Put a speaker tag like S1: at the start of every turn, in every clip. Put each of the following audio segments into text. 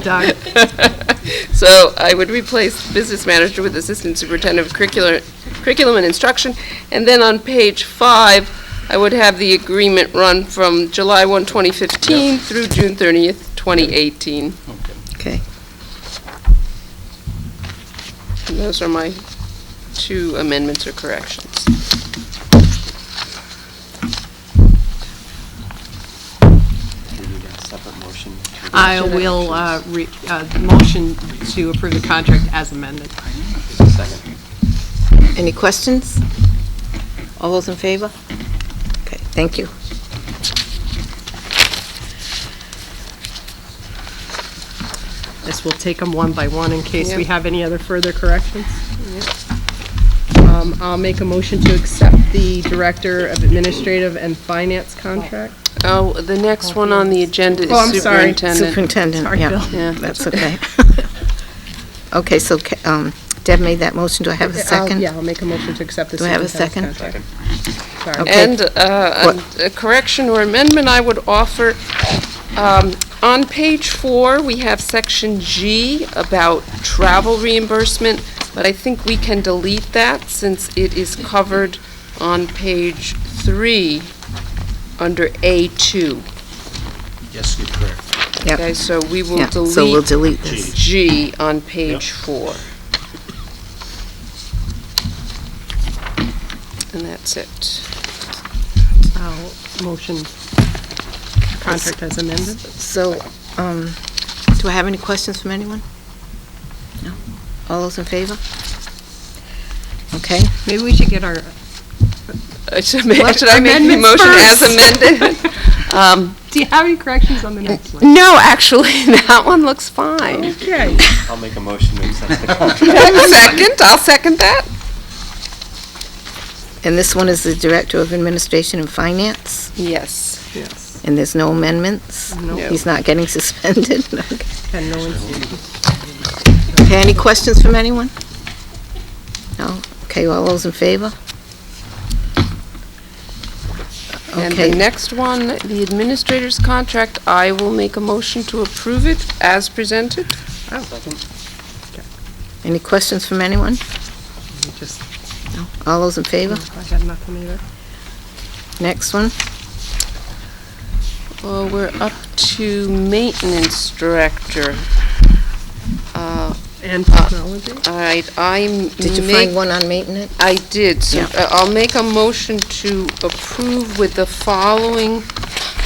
S1: Doug?
S2: So I would replace business manager with assistant superintendent of curricular, curriculum and instruction. And then on page five, I would have the agreement run from July 1, 2015 through June 30th, 2018.
S3: Okay.
S1: Okay,
S2: And those are my two amendments or corrections.
S4: Do we need a separate motion?
S1: I will, uh, re- uh, motion to approve the contract as amended.
S4: Second.
S5: Any questions? All those in favor? Okay, thank you.
S1: This will take them one by one in case we
S2: Yeah.
S1: have any other further corrections. Um, I'll make a motion to accept the Director of Administrative and Finance contract.
S2: Oh, the next one on the agenda
S1: Oh, I'm
S2: is
S1: sorry.
S2: superintendent.
S5: Superintendent,
S1: Sorry, Bill.
S2: Yeah.
S5: yeah, that's okay. Okay, so ca- um, Deb made that motion, do I have a
S1: I'll-
S5: second?
S1: uh, Yeah, I'll make a motion to accept the
S5: Do I have a
S1: superintendent's
S5: second?
S1: contract. Sorry.
S5: Okay.
S2: And uh, a a correction or amendment I would offer, um, on page four, we have section G about travel reimbursement, but I think we can delete that since it is covered on page three, under A2.
S3: Yes, you're correct.
S5: Yep.
S2: Okay, so we will
S5: Yeah, So we'll
S2: delete
S5: delete this.
S2: G on page four. And that's it.
S1: I'll motion contract as amended.
S5: So, um, do I have any questions from anyone? No? All those in favor? Okay,
S1: Maybe we should get our,
S2: Uh, Should ma- should I make the
S1: amendments
S2: motion as
S1: first.
S2: amended? Um,
S1: do you have any corrections on the next one?
S2: No, actually, that one looks fine.
S1: Okay.
S4: I'll make a motion to accept the
S2: Do
S4: contract.
S2: I have a second? I'll second that.
S5: and this one is the Director of Administration and Finance,
S2: Yes.
S1: Yes.
S5: and there's no amendments?
S1: No.
S2: No.
S5: He's not getting suspended? Okay.
S1: And no one's,
S5: Okay, any questions from anyone? No? Okay, all those in favor?
S2: And the
S5: Okay,
S2: next one, the administrator's contract, I will make a motion to approve it as presented.
S5: any questions from anyone?
S1: we just,
S5: No? All those in favor?
S1: I had nothing either.
S5: Next one?
S2: Well, Uh, we're up to maintenance director. Uh,
S1: And technology?
S2: I, I
S5: Did you
S2: make
S5: find one on maintenance?
S2: I did, so
S5: Yeah.
S2: uh, I'll make a motion to approve with the following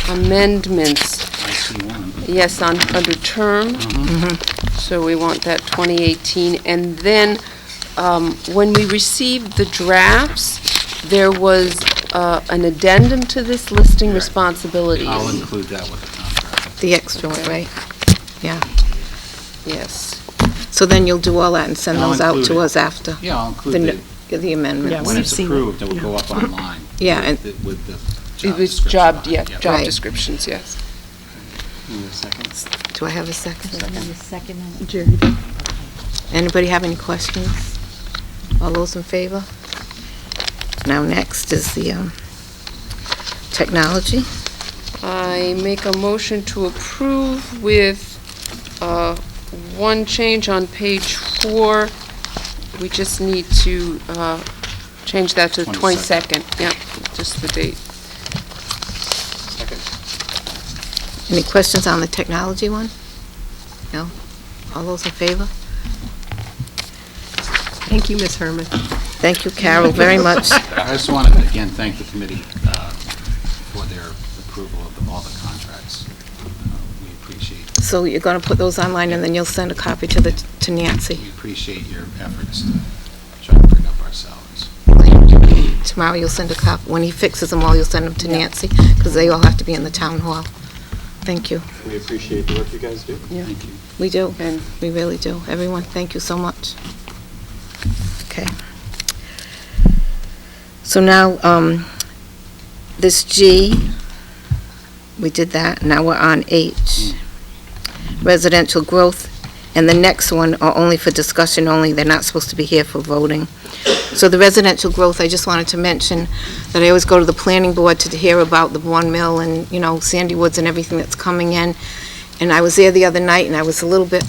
S2: amendments.
S3: I see one.
S2: Yes, on, under term,
S5: Mm-hmm.
S2: so we want that 2018. And then, um, when we received the drafts, there was uh, an addendum to this listing
S3: I'll
S2: responsibilities.
S3: include that with the contract.
S5: The extra one, right? Yeah.
S2: Yes.
S5: So then you'll do all that and send
S3: I'll
S5: those out to
S3: include it.
S5: us after
S3: Yeah, I'll
S5: the
S3: include
S5: n-
S3: it
S5: the amendments?
S3: when
S1: we've
S3: it's
S1: seen it.
S3: approved, it will go up online.
S5: Yeah,
S3: with
S5: and-
S3: the- With the
S2: It
S3: job
S2: was
S3: description.
S2: job,
S3: on it.
S2: yeah,
S3: Yep.
S2: job
S5: Right.
S2: descriptions, yes.
S4: Need a second?
S5: Do I have a second?
S6: Second.
S1: Jerry?
S5: Anybody have any questions? All those in favor? Now, next is the um, technology.
S2: I make a motion to approve with uh, one change on page four. We just need to uh, change that to the
S3: 22nd.
S2: 22nd. Yeah, just the date.
S5: Any questions on the technology one? No? All those in favor?
S1: Thank you, Ms. Herman.
S5: Thank you, Carol, very much.
S3: I just want to, again, thank the committee uh, for their approval of the- all the contracts. Uh, We appreciate,
S5: So you're going to put those online, and then you'll send a copy to the, to Nancy.
S3: we appreciate your efforts to try to bring up our salaries.
S5: Tomorrow you'll send a copy, when he fixes them all, you'll send them to Nancy, because they all have to be in the town hall. Thank you.
S4: We appreciate the work you guys do.
S3: Thank you.
S5: We do.
S2: And-
S5: We really do. Everyone, thank you so much. Okay. So now, um, this G, we did that, now we're on H. Residential growth, and the next one are only for discussion only, they're not supposed to be here for voting. So the residential growth, I just wanted to mention that I always go to the planning board to hear about the Bourne Mill and, you know, Sandy Woods and everything that's coming in. And I was there the other night, and I was a little bit